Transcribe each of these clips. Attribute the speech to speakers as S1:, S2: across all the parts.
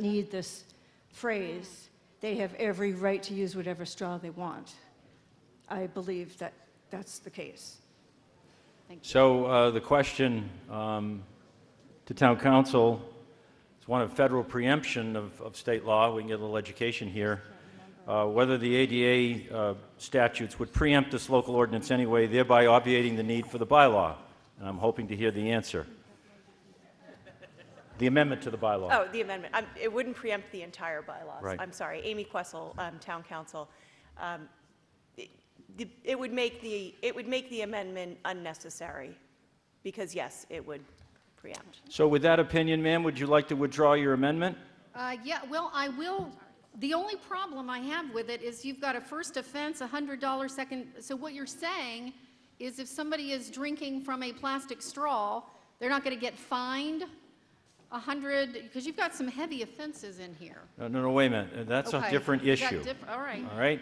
S1: need this phrase. They have every right to use whatever straw they want. I believe that that's the case.
S2: So uh, the question um, to town council is one of federal preemption of, of state law. We can get a little education here. Uh, Whether the ADA uh, statutes would preempt this local ordinance anyway, thereby obviating the need for the bylaw. And I'm hoping to hear the answer. The amendment to the bylaw.
S3: Oh, the amendment. Um, It wouldn't preempt the entire bylaws.
S2: Right.
S3: I'm sorry. Amy Questle, um, Town Council. Um, it- the- It would make the, it would make the amendment unnecessary, because yes, it would preempt.
S2: So with that opinion, ma'am, would you like to withdraw your amendment?
S4: Uh, Yeah, well, I will, the only problem I have with it is you've got a first offense, a hundred dollar second, so what you're saying is if somebody is drinking from a plastic straw, they're not gonna get fined a hundred, because you've got some heavy offenses in here.
S2: No, no, no, wait a minute. That's a
S4: Okay.
S2: different
S4: You've got
S2: issue. Uh,
S4: diff- All right,
S2: All right?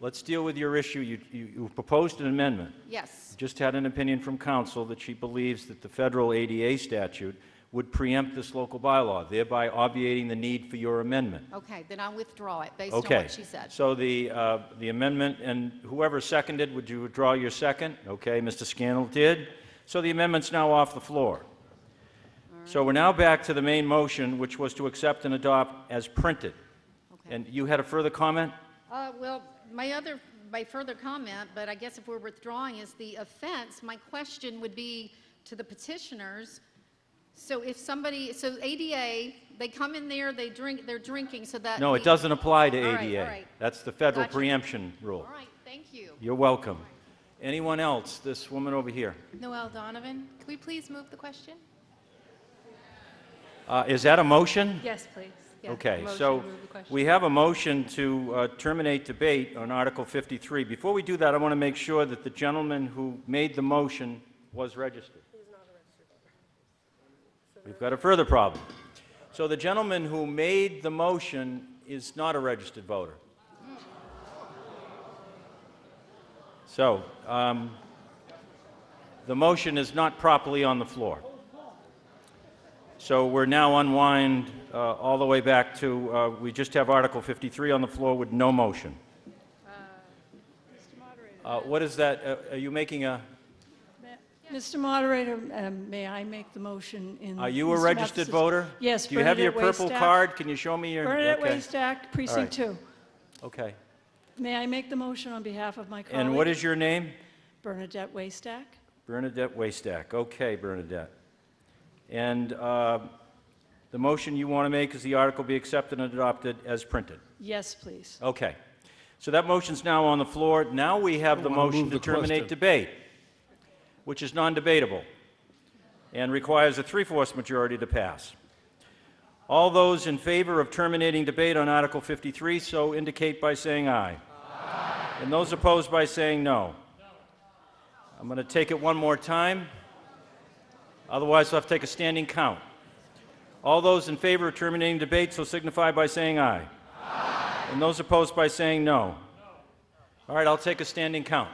S2: Let's deal with your issue. You, you you proposed an amendment.
S4: yes,
S2: Just had an opinion from counsel that she believes that the federal ADA statute would preempt this local bylaw, thereby obviating the need for your amendment.
S4: okay, then I withdraw it based on
S2: Okay.
S4: what she said.
S2: So the, uh, the amendment, and whoever seconded, would you withdraw your second? Okay, Mr. Scannell did. So the amendment's now off the floor. So we're now back to the main motion, which was to accept and adopt as printed.
S4: Okay.
S2: And you had a further comment?
S4: Uh, Well, my other, my further comment, but I guess if we're withdrawing, is the offense. My question would be to the petitioners. So if somebody, so ADA, they come in there, they drink, they're drinking, so that.
S2: No, it
S4: the-
S2: doesn't apply to
S4: Uh, All right, all
S2: ADA.
S4: right.
S2: That's the federal
S4: Gotcha.
S2: preemption rule.
S4: All right, thank you.
S2: You're welcome. Anyone else? This woman over here.
S5: Noel Donovan, could we please move the question?
S2: Uh, Is that a motion?
S5: Yes, please. Yes,
S2: Okay,
S5: motion,
S2: so
S5: move the question.
S2: we have a motion to uh, terminate debate on Article 53. Before we do that, I want to make sure that the gentleman who made the motion was registered. We've got a further problem. So the gentleman who made the motion is not a registered voter. So, um, the motion is not properly on the floor. So we're now unwind uh, all the way back to, uh, we just have Article 53 on the floor with no motion. Uh, What is that? Uh, Are you making a,
S6: Mr. Moderator, um, may I make the motion in?
S2: are you a
S6: Mr.
S2: registered
S6: Matheson's-
S2: voter?
S6: Yes.
S2: Do you have your
S6: Bernadette
S2: purple
S6: Waystack-
S2: card? Can you show me your?
S6: Bernadette
S2: okay.
S6: Waste Act, Precinct 2.
S2: Okay.
S6: May I make the motion on behalf of my colleague?
S2: And what is your name?
S6: Bernadette Waste Act?
S2: Bernadette Waystack. Okay, Bernadette. And uh, the motion you want to make is the article be accepted and adopted as printed.
S6: Yes, please.
S2: Okay. So that motion's now on the floor. Now we have the
S7: wanna
S2: motion
S7: move
S2: to
S7: the
S2: terminate
S7: question.
S2: debate, which is non-debatable and requires a three-fourths majority to pass. All those in favor of terminating debate on Article 53, so indicate by saying aye. And those opposed by saying no. I'm going to take it one more time. Otherwise, I'll have to take a standing count. All those in favor of terminating debate, so signify by saying aye. And those opposed by saying no? All right, I'll take a standing count.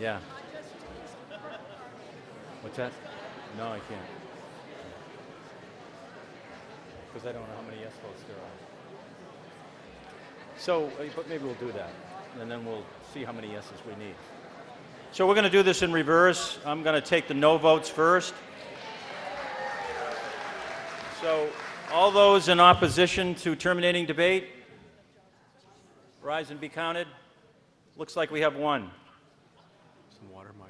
S2: Yeah. What's that? No, I can't. Because I don't know how many yes votes there are. So, uh, but maybe we'll do that, and then we'll see how many yeses we need. So we're going to do this in reverse. I'm going to take the no votes first. So all those in opposition to terminating debate, rise and be counted. Looks like we have one.
S7: Some water, Mike.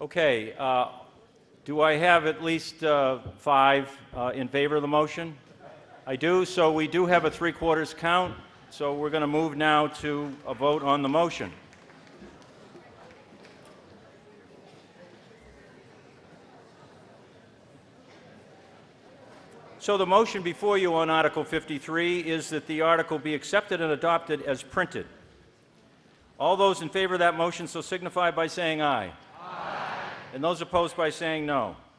S2: Okay, uh, do I have at least uh, five uh, in favor of the motion? I do, so we do have a three-quarters count, so we're going to move now to a vote on the motion. So the motion before you on Article 53 is that the article be accepted and adopted as printed. All those in favor of that motion so signify by saying aye. and those opposed by saying no.